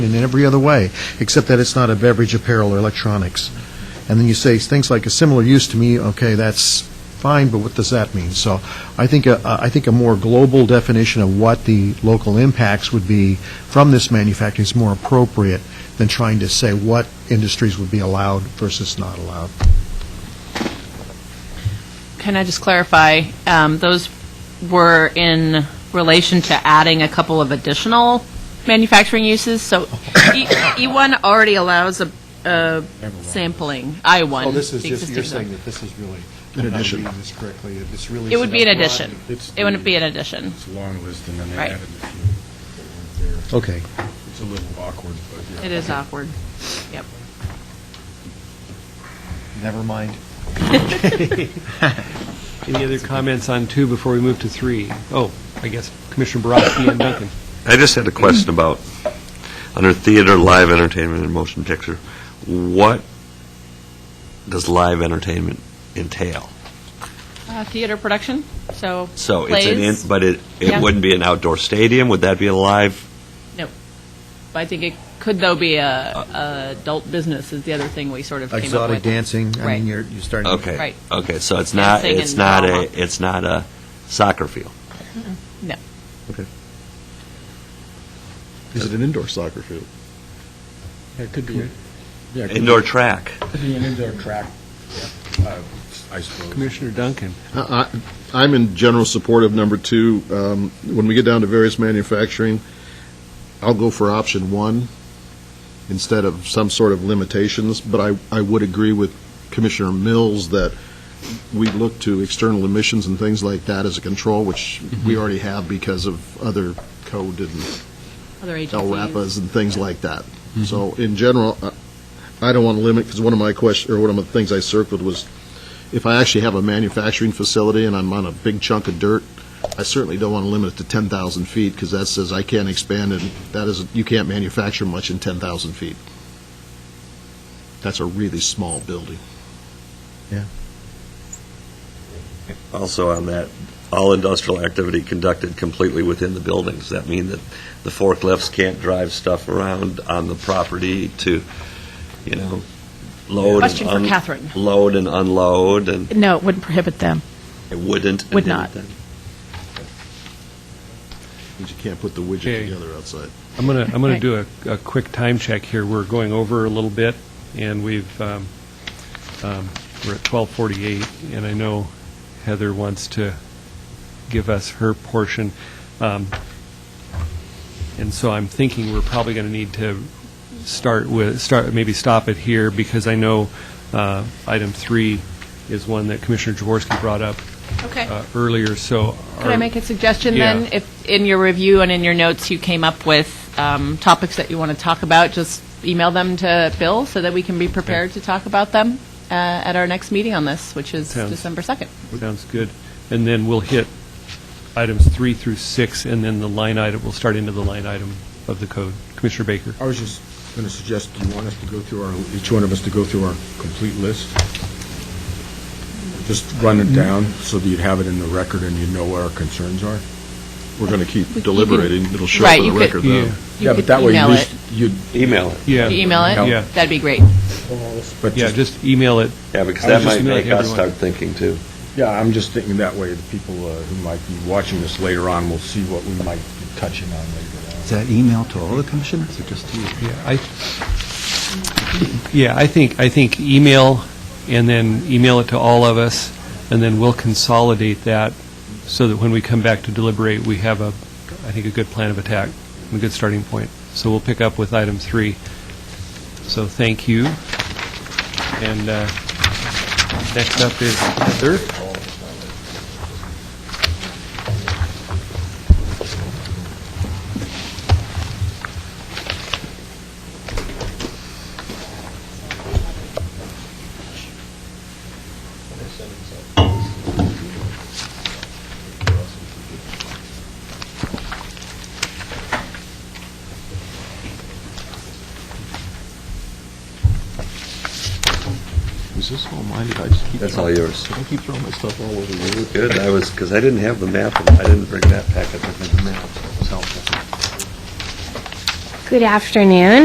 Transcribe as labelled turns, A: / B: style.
A: in every other way, except that it's not a beverage, apparel, or electronics. And then you say things like a similar use to me, okay, that's fine, but what does that mean? So I think, a- I think a more global definition of what the local impacts would be from this manufacturing is more appropriate than trying to say what industries would be allowed versus not allowed.
B: Can I just clarify, um, those were in relation to adding a couple of additional manufacturing uses? So E- E1 already allows a- a sampling, I1.
A: Oh,
C: Oh,
B: the existing zone.
A: that this is really, an addition. this correctly, it's really.
B: It would be an addition.
C: It's
B: It wouldn't
C: the-
B: be an addition.
C: It's a long list, and then they
B: Right.
C: added a few. right there.
A: Okay.
C: It's a little awkward, but yeah.
B: It is uh, awkward. Yep.
A: Never mind.
D: Any other comments on two before we move to three? Oh, I guess Commissioner Borowski and Duncan.
E: I just had a question about, under theater, live entertainment, and motion picture, what does live entertainment entail?
B: Uh, Theater production, so
E: So it's an,
B: plays,
E: in- but it,
B: Yeah.
E: it wouldn't be an outdoor stadium, would that be a live?
B: But I think it could, though, be a- a adult business is the other thing we sort of came up
A: Exotic
B: with.
A: dancing, I
B: Right.
A: mean, you're, you're starting. to-
E: Okay.
B: Right.
E: Okay, so it's not,
B: Dancing
E: it's
B: and
E: not
B: drama.
E: a, it's not a soccer field.
F: Is it an indoor soccer field?
C: It could be. Yeah, it
E: Indoor track.
C: could be an indoor track, uh, I suppose.
D: Commissioner Duncan.
F: I- I- I'm in general support of number two. Um, When we get down to various manufacturing, I'll go for option one instead of some sort of limitations, but I I would agree with Commissioner Mills that we look to external emissions and things like that as a control, which we already have because of other code and
B: Other
F: El
B: agencies.
F: Rapas and things like that. So in general, I- I don't want to limit, because one of my question, or one of the things I circled was, if I actually have a manufacturing facility and I'm on a big chunk of dirt, I certainly don't want to limit it to 10,000 feet, because that says I can't expand, and that is, you can't manufacture much in 10,000 feet. That's a really small building.
E: Also on that, all industrial activity conducted completely within the building. Does that mean that the forklifts can't drive stuff around on the property to, you know, load? and
B: Question for
E: un-
B: Catherine.
E: Load and unload, and
G: No, it wouldn't prohibit them.
E: it wouldn't? and
G: Would not.
E: didn't
F: Because you can't put the
D: Okay.
F: widget together outside.
D: I'm going to, I'm going to
G: Right.
D: do a, a quick time check here. We're going over a little bit, and we've, um, um, we're at 12:48, and I know Heather wants to give us her portion. Um, And so I'm thinking we're probably going to need to start with, start, maybe stop it here, because I know uh, item three is one that Commissioner Jaworski brought up
B: Okay.
D: uh, earlier, so.
B: Could I
D: are-
B: make a suggestion
D: Yeah.
B: then? If in your review and in your notes you came up with um, topics that you want to talk about, just email them to Bill so that we can be prepared to talk about them uh, at our next meeting on this, which is
D: Sounds-
B: December 2nd.
D: Sounds good. And then we'll hit items three through six, and then the line item, we'll start into the line item of the code. Commissioner Baker?
C: I was just going to suggest, do you want us to go through our, each one of us to go through our complete list? Just run it down so that you'd have it in the record and you know what our concerns are?
F: We're going to
B: We- you
F: keep deliberating, it'll show
B: Right,
F: up in
B: you
F: the
B: could-
F: record, though.
B: You
C: Yeah,
B: could
C: but that way, at
B: email
C: least you'd,
E: Email it.
D: Yeah,
B: Could you email it?
D: Yeah.
B: That'd be great.
C: but
D: yeah,
C: just,
D: just email it.
E: Yeah, because
D: I
E: that
D: was just
E: might
D: gonna
E: make
D: let
E: us
D: everyone-
E: start thinking too.
C: yeah, I'm just thinking that way, the people uh, who might be watching this later on will see what we might be touching on later on.
H: Is that email to all the commissioners or just to you?
D: Yeah, I, yeah, I think, I think email, and then email it to all of us, and then we'll consolidate that so that when we come back to deliberate, we have a, I think, a good plan of attack, and a good starting point. So we'll pick up with item three. So thank you. And uh, next up is Heather.
F: Is this all mine? Did I just keep
E: That's
F: throwing-
E: all yours.
F: Did I keep throwing my stuff all over the room?
E: Good, I was, because I didn't have the map, and I didn't bring that packet with me.
F: It's helpful.
I: Good afternoon.